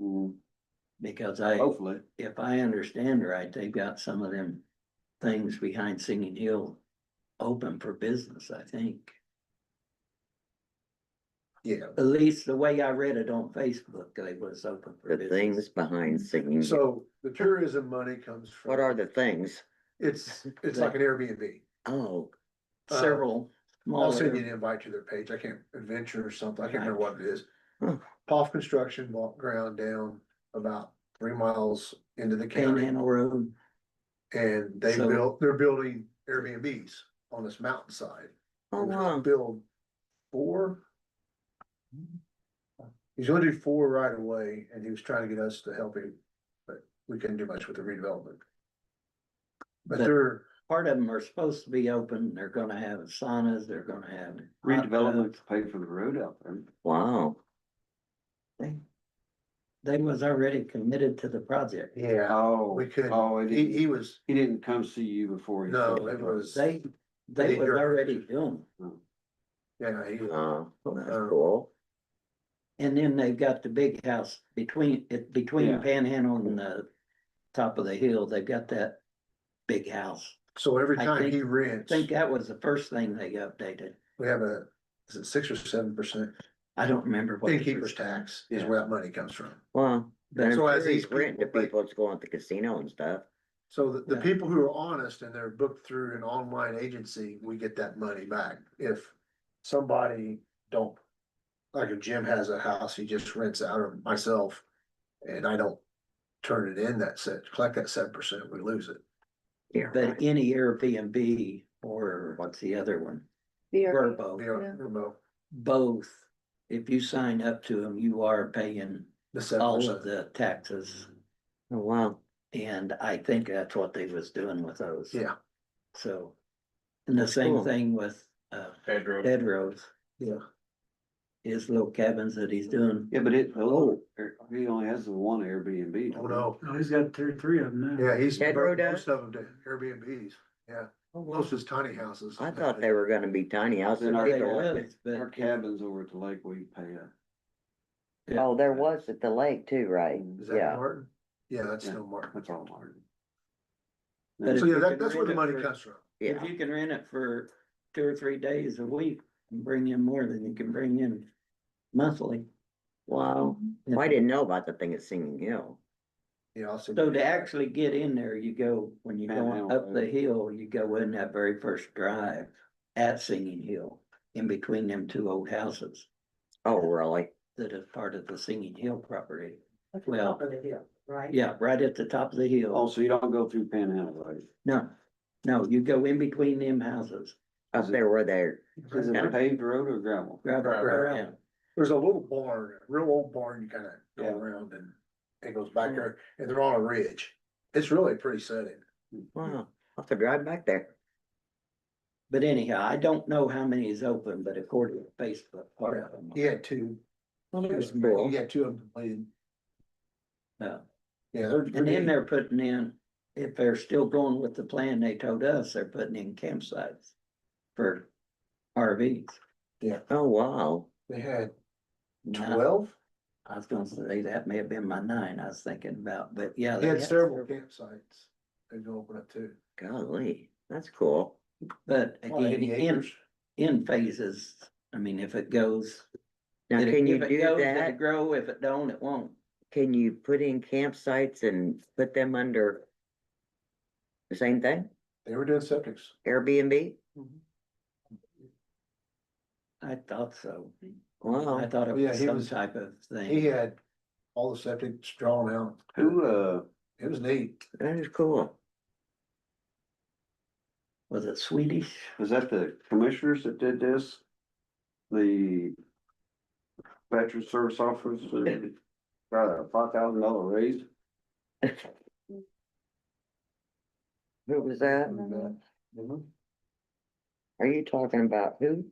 Mm, Because I, Oh. Hopefully. if I understand right, they've got some of them things behind Singing Hill open for business, I think. Yeah. At least the way I read it on Facebook, they was open for The business. things behind singing, So the tourism money comes from. what are the things? It's, it's like an Airbnb. Oh, uh, Several I'll send you an smaller, invite to their page. I can't, Adventure or something. I can't remember what it is. Hmm. Huh. Off construction, walk ground down about three miles into the county. Panhandle Road, And they So- built, they're building Airbnbs on this mountainside. oh, And they're gonna wow, Build four. He's gonna do four right away and he was trying to get us to help him, but we couldn't do much with the redevelopment. But- But they're, part of them are supposed to be open, they're gonna have saunas, they're gonna have. hot Redevelopment tubs. to pay for the road out there. wow. They- They was already committed to the project. yeah, Oh, we couldn't. oh, it he, didn't- he was, he didn't come see you before. he no, sold it was, They, they They was direct- already doing. it. yeah, he, Oh, that's Uh, cool. And then they've got the big house between, it between Yeah. Panhandle and the top of the hill, they've got that big house. so every I time think- he I rents, think that was the first thing they updated. we have a, is it six or seven percent I don't remember what. it innkeeper's was. tax is Yeah. where that money comes from. Wow. But- And So I'm as sure these he's renting to people, like- people that's going to the casino and stuff. So the, the Yeah. people who are honest and they're booked through an online agency, we get that money back. If somebody don't. Like if Jim has a house, he just rents out of myself and I don't turn it in that set, collect that seven percent, we lose it. Yeah, But right. any Airbnb or what's the other one? Verbo, We are- we're about both, if you sign up to them, you are paying The seven all of percent, the taxes. Oh, wow, And I think that's what they was doing with those. yeah, So. And the same Cool. thing with uh Pedro. Ted Rose, yeah. his little cabins that he's doing. Yeah, but it, hello, er, he only has the one Airbnb. Oh, no, No, he's got three, three of them now. yeah, he's, Ted Rowe most does? of them do Airbnbs, yeah, Oh, wow. most of his tiny houses. I thought they were gonna be tiny houses. Then our- They people- was, Our but cabins over at the lake, we pay a. Oh, there was at the lake too, right? Mm, Is that Yeah, Martin? Yeah, that's Yeah. no Martin. That's all Martin. But So if yeah, you that, can that's where the rent it money for- comes from. if yeah, you can rent it for two or three days a week and bring in more than you can bring in monthly. wow. Mm-hmm. Well, I didn't know about the thing at Singing Hill. Yeah, I'll send So you to that. actually get in there, you go, when you go Panhandle up the Road. hill, you go in that very first drive at Singing Hill. In between them two old houses Oh, really? that is part of the Singing Hill property. At the Well- top of the hill, right? Yeah, right at the top of the hill. Oh. Also, you don't go through Panhandle, right? No, no, you go in between them houses. Up there where they're, Is it Yeah. a paved road or gravel? Grab Right, right, right. There's a little barn, a real old barn, you kinda go Yeah. around and it goes Mm-hmm. back there, and they're on a ridge. It's really pretty setting. wow, I'll have to drive back there. But anyhow, I don't know how many is open, but according to Facebook, part of them. He had two, Well, he that's cool. had two of them completed. Yeah. Yeah, they're. And then they're putting in, if they're still going with the plan they told us, they're putting in campsites for RVs. Oh, wow. They had Now, twelve, I was gonna say, that may have been my nine I was thinking about, but yeah. they they had had several several. campsites they'd go open up to. Golly, that's cool. But Well, again, 80 in, acres. in phases, I mean, if it goes. Now, if it- can you if it do goes, it'll that? Grow, if it don't, it won't. Can you put in campsites and put them under? The same thing, They were doing septics. Airbnb? I thought so. I Wow, thought it Yeah, was he some was- type of He thing. had all the septics drawn out. Who, uh, It was neat. that is cool. Was it Swedish? was that the commissioners that did this? The veteran service officers, that got a five thousand dollar raise? Who was that? Are you talking about who?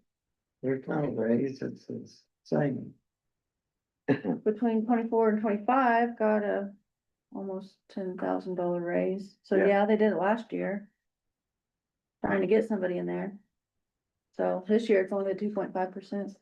They're Oh, kind of raised, it's the same. Between twenty-four and twenty-five, got a almost ten thousand dollar raise. So Yeah. yeah, they did it last year. Trying to get somebody in there. So this year it's only at two point five percent.